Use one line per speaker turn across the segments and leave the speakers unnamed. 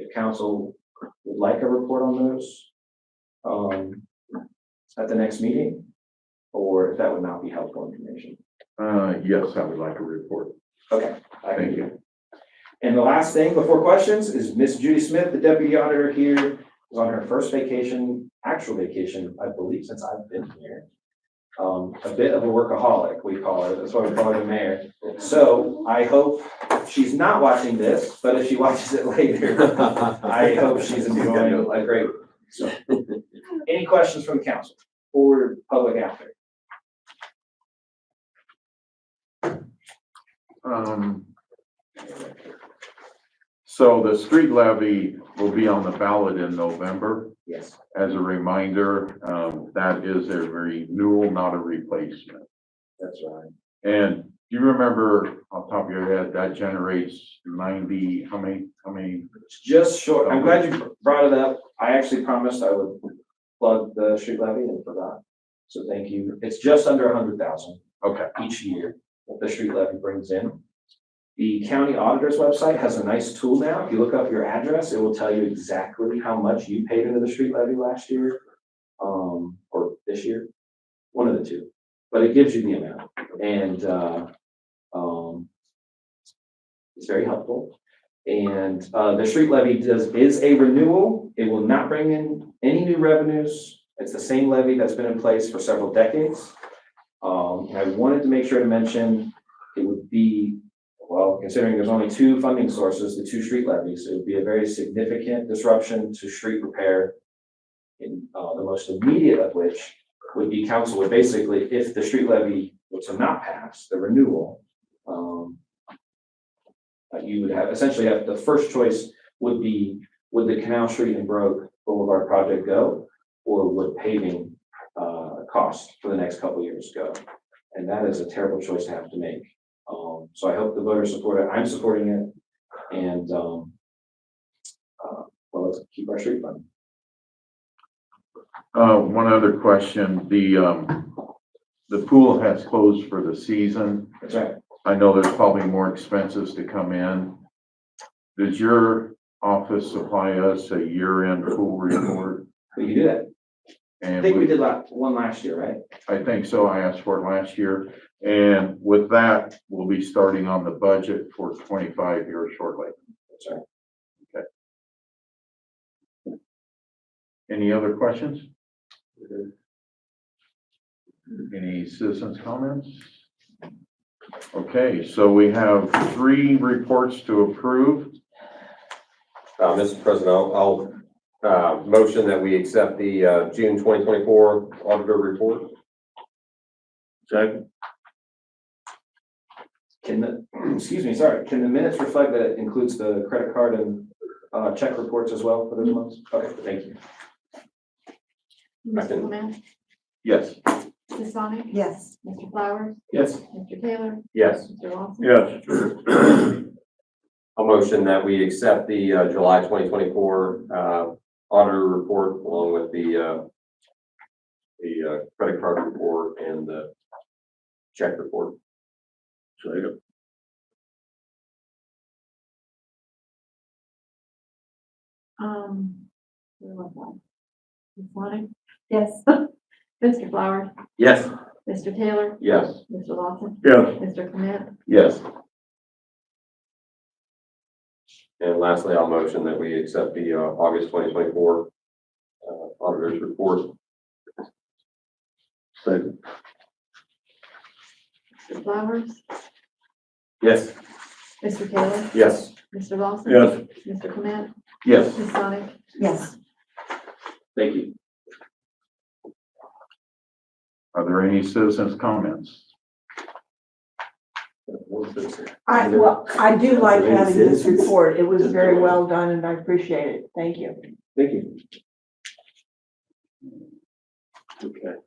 if council would like a report on those um, at the next meeting, or if that would not be helpful information.
Uh, yes, I would like a report.
Okay. I
Thank you.
And the last thing before questions is Miss Judy Smith, the deputy auditor here, is on her first vacation, actual vacation, I believe, since I've been here. Um, a bit of a workaholic, we call her, that's why we call her the mayor. So I hope she's not watching this, but if she watches it later, I hope she's enjoying a great, so. Any questions from the council or public out there?
Um. So the street levy will be on the ballot in November.
Yes.
As a reminder, um, that is a renewal, not a replacement.
That's right.
And do you remember off the top of your head, that generates ninety, how many, how many?
Just short, I'm glad you brought it up. I actually promised I would plug the street levy and forgot. So thank you. It's just under a hundred thousand
Okay,
each year that the street levy brings in. The county auditor's website has a nice tool now. If you look up your address, it will tell you exactly how much you paid into the street levy last year. Um, or this year, one of the two, but it gives you the amount and, uh, um, it's very helpful. And, uh, the street levy does, is a renewal. It will not bring in any new revenues. It's the same levy that's been in place for several decades. Um, and I wanted to make sure to mention, it would be, well, considering there's only two funding sources, the two street levies, it would be a very significant disruption to street repair. And, uh, the most immediate of which would be council would basically, if the street levy were to not pass, the renewal, um, uh, you would have, essentially have, the first choice would be, would the Canal Street and Broke Boulevard project go? Or would paving, uh, cost for the next couple years go? And that is a terrible choice to have to make. Um, so I hope the voters support it. I'm supporting it. And, um, uh, well, let's keep our street fund.
uh, one other question, the, um, the pool has closed for the season.
That's right.
I know there's probably more expenses to come in. Does your office supply us a year-end pool report?
We can do that. I
And
think we
with-
did la- one last year, right?
I think so, I asked for it last year. And with that, we'll be starting on the budget for twenty-five here shortly.
That's right.
Any other questions? Any citizens' comments? Okay, so we have three reports to approve.
Uh, Mr. President, I'll, I'll, uh, motion that we accept the, uh, June twenty twenty-four auditor report.
Second.
Can the, excuse me, sorry, can the minutes reflect that it includes the credit card and, uh, check reports as well for those months? Okay, thank you.
I
Mr.
can-
Clement,
Yes.
Ms. Sonic,
Yes.
Mr. Flowers,
Yes.
Mr. Taylor,
Yes.
Mr. Lawson.
Yes.
I'll motion that we accept the, uh, July twenty twenty-four, uh, auditor report along with the, uh, the, uh, credit card report and the check report.
Um, where was I? Ms. Sonic,
Yes.
Mr. Flowers,
Yes.
Mr. Taylor,
Yes.
Mr. Lawson,
Yes.
Mr. Clement,
Yes.
And lastly, I'll motion that we accept the, uh, August twenty twenty-four, uh, auditor's report.
Second.
Mr. Flowers,
Yes.
Mr. Taylor,
Yes.
Mr. Lawson. Mr. Clement,
Yes.
Ms. Sonic,
Yes.
Thank you.
Are there any citizens' comments?
I, well, I do like having this report. It was very well done and I appreciate it. Thank you.
Thank you.
Okay.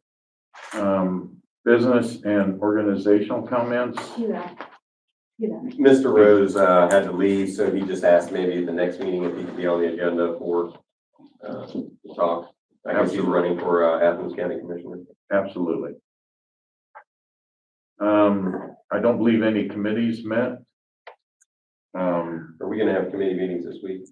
Um, business and organizational comments?
you know. You know.
Mr. Rose uh, had to leave, so he just asked maybe at the next meeting if he could be on the agenda for uh, to talk. I guess he's running for uh, Athens County Commissioner.
Absolutely. Um, I don't believe any committees met. Um,
Are we gonna have committee meetings this week?